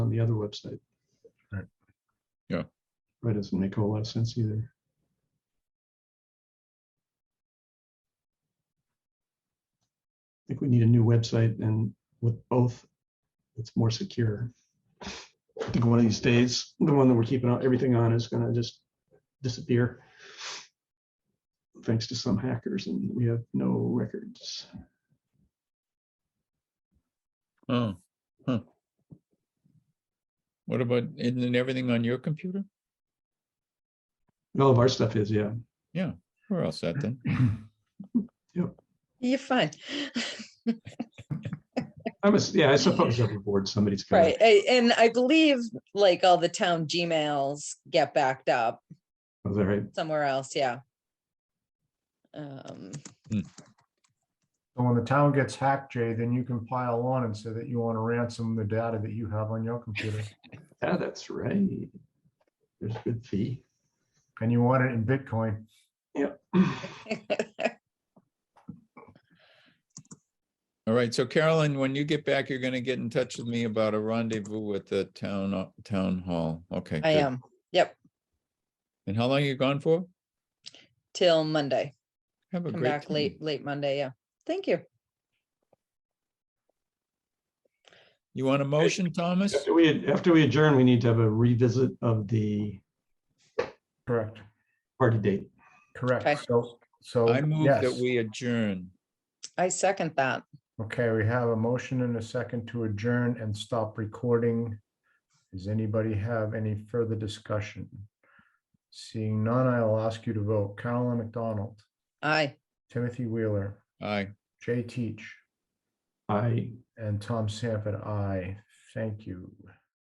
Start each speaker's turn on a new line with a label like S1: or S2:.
S1: on the other website.
S2: Right.
S3: Yeah.
S1: That doesn't make a whole lot of sense either. I think we need a new website and with both, it's more secure. I think one of these days, the one that we're keeping on- everything on is gonna just disappear. Thanks to some hackers and we have no records.
S3: Oh, huh. What about, isn't it everything on your computer?
S1: All of our stuff is, yeah.
S3: We're all set then.
S4: You're fine.
S1: I'm, a- yeah, I suppose every board, somebody's got.
S4: Right. a- And I believe like all the town Gmails get backed up
S1: Is that right?
S4: somewhere else. Yeah. Um,
S2: So when the town gets hacked, Jay, then you can pile on and say that you want to ransom the data that you have on your computer.
S1: Yeah, that's right. There's a good fee.
S2: And you want it in Bitcoin.
S3: All right. So Carolyn, when you get back, you're going to get in touch with me about a rendezvous at the town, o- town hall. Okay.
S4: I
S3: good.
S4: am
S3: And how long you gone for?
S4: till Monday.
S3: Have a
S4: Come
S3: Oh, great.
S4: back
S3: time.
S4: late, late Monday. Yeah. Thank you.
S3: You want a motion, Thomas?
S1: After we, after we adjourn, we need to have a revisit of the
S2: Correct,
S1: party date.
S4: Okay.
S2: correct. So, so.
S3: I move that
S2: Oh, yes.
S3: we adjourn.
S4: I second that.
S2: Okay, we have a motion and a second to adjourn and stop recording. Does anybody have any further discussion? Seeing none, I'll ask you to vote. Carolyn McDonald,
S4: Aye.
S2: Timothy Wheeler,
S3: Aye.
S2: Jay Teach,
S1: I
S2: and Tom Sanford, aye. Thank you.